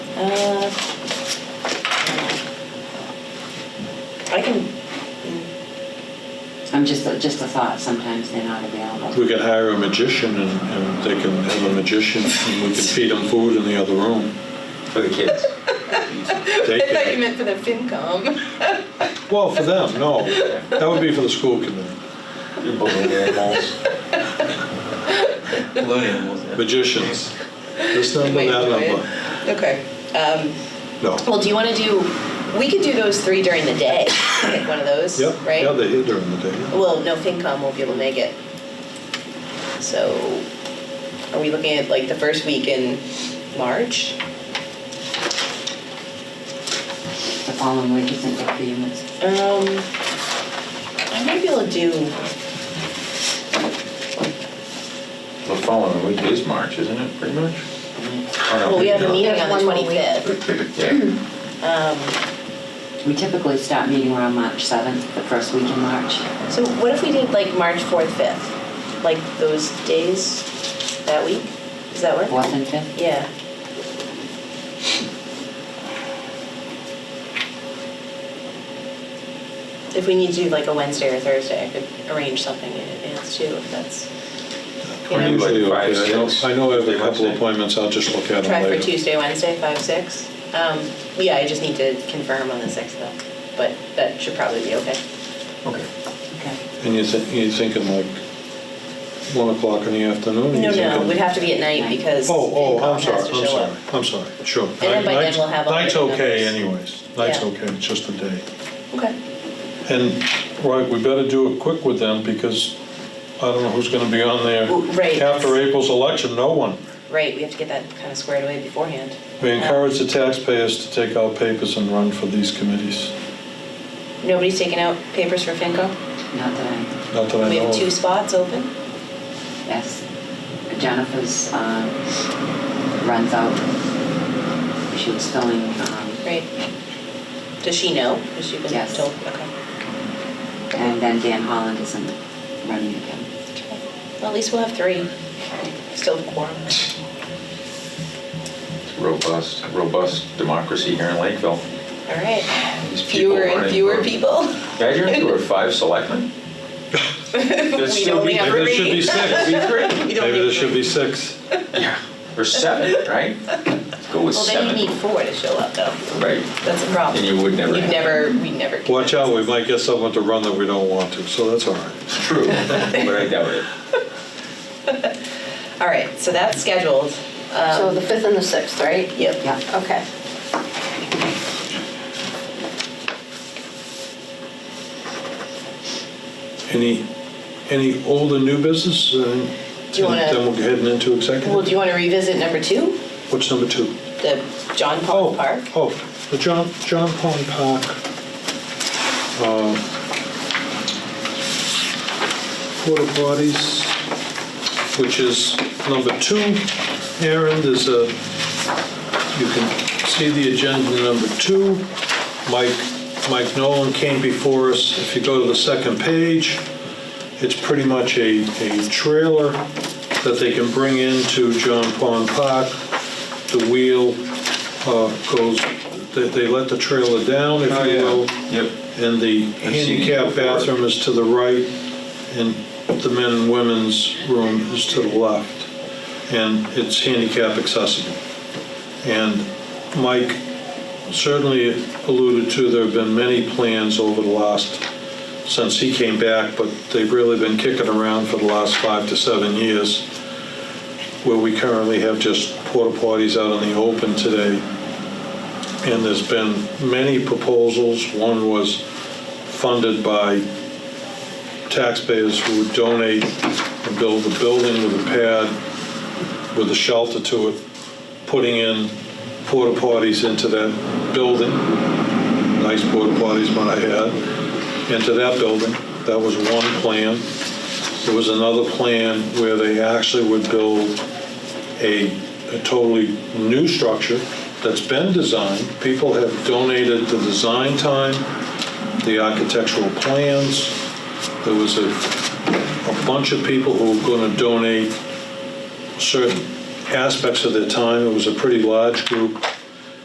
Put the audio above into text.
Uh, I can, I'm just, just a thought, sometimes they're not available. We could hire a magician and, and they can have a magician and we can feed them food in the other room. for the kids. They I thought you can, meant for the FinCom. well, for them, no. That would be for the school committee. Balloon animals. Balloon animals, yeah. Magicians. This number, Wait, that do it. number. Okay. Um, No. Well, do you want to do, we could do those three during the day, pick one of those, Yep, right? yeah, they're here during the day. Well, no, FinCom won't be able to make it. So are we looking at like the first week in March? The following week isn't good for you, it's Um, I might be able to do, The following week is March, isn't it, pretty much? well, we have a meeting on the One more week. 25th. Yeah, Um, We typically start meeting around March 7th, the first week in March. So what if we did like March 4th, 5th? Like those days that week? Does that work? 4th and 5th? Yeah. If we need to do like a Wednesday or Thursday, I could arrange something in advance too, if that's, you I'm know. usually Like okay. five, I know- six, I know I have a Tuesday, couple Wednesday. appointments, I'll just look at them Try for later. Tuesday, Wednesday, five, six. Um, yeah, I just need to confirm on the sixth though, but that should probably be okay. okay. Okay. And you're thi- you're thinking like 1 o'clock in the afternoon? No, no, you're thinking- it would have to be at night because Oh, oh, FinCom I'm has sorry, to I'm show sorry, up. I'm sorry, sure. And then by then we'll have all Night's the okay numbers. anyways, night's Yeah. okay, it's just a day. Okay, And, right, we better do it quick with them because I don't know who's going to be on there. Well, right. After April's election, no one. right, we have to get that kind of squared away beforehand. We Um, encourage the taxpayers to take out papers and run for these committees. Nobody's taking out papers for FinCom? Not that Not that I know of. We have two spots open? I, yes. Jennifer's um, runs out. She was filling, um, Right. Does she know? Has she been Yes. told? Okay. and then Dan Holland isn't running again. Well, at least we'll have three. Still have quorum. It's Robust, robust democracy here in Lakeville. All right. These people Fewer and running fewer for- people. Imagine if there were five selectmen. There'd We still only be- have Maybe there should be three. six. We Maybe don't there need should three. be six. Yeah, or seven, right? Let's Go with Well, then you seven. need four to show up though. Right, That's a problem. And you would never We'd have. never, we'd never. get Watch that. out, we might get someone to run that we don't want to, so that's all right. it's true, but I doubt it. All right, so that's scheduled. Um, So the 5th and the 6th, right? Yep. Yeah. Okay. Any, any old and new business? uh, Do you wanna- Then we're heading into Well, executive. do you want to revisit number two, What's number two? the John Oh, Paul Park? Oh, the John, John Pond Park. uh, Porta potties, which is number two. Aaron, there's a, you can see the agenda number two. Mike, Mike Nolan came before us. If you go to the second page, it's pretty much a, a trailer that they can bring into John Pond Park. The wheel uh, goes, they, they let the trailer down, if Oh, you yeah. will. Yep. And the I've seen it handicap before. bathroom is to the right, and the men and women's room is to the left. And it's handicap accessible. And Mike certainly alluded to, there have been many plans over the last, since he came back, but they've really been kicking around for the last five to seven years, where we currently have just porta potties out in the open today. And there's been many proposals. One was funded by taxpayers who would donate and build a building with a pad, with a shelter to it, putting in porta potties into that building. Nice porta potties, might I add, into that building. That was one plan. There was another plan where they actually would build a, a totally new structure that's been designed. People have donated the design time, the architectural plans. There was a, a bunch of people who were going to donate certain aspects of their time. It was a pretty large group.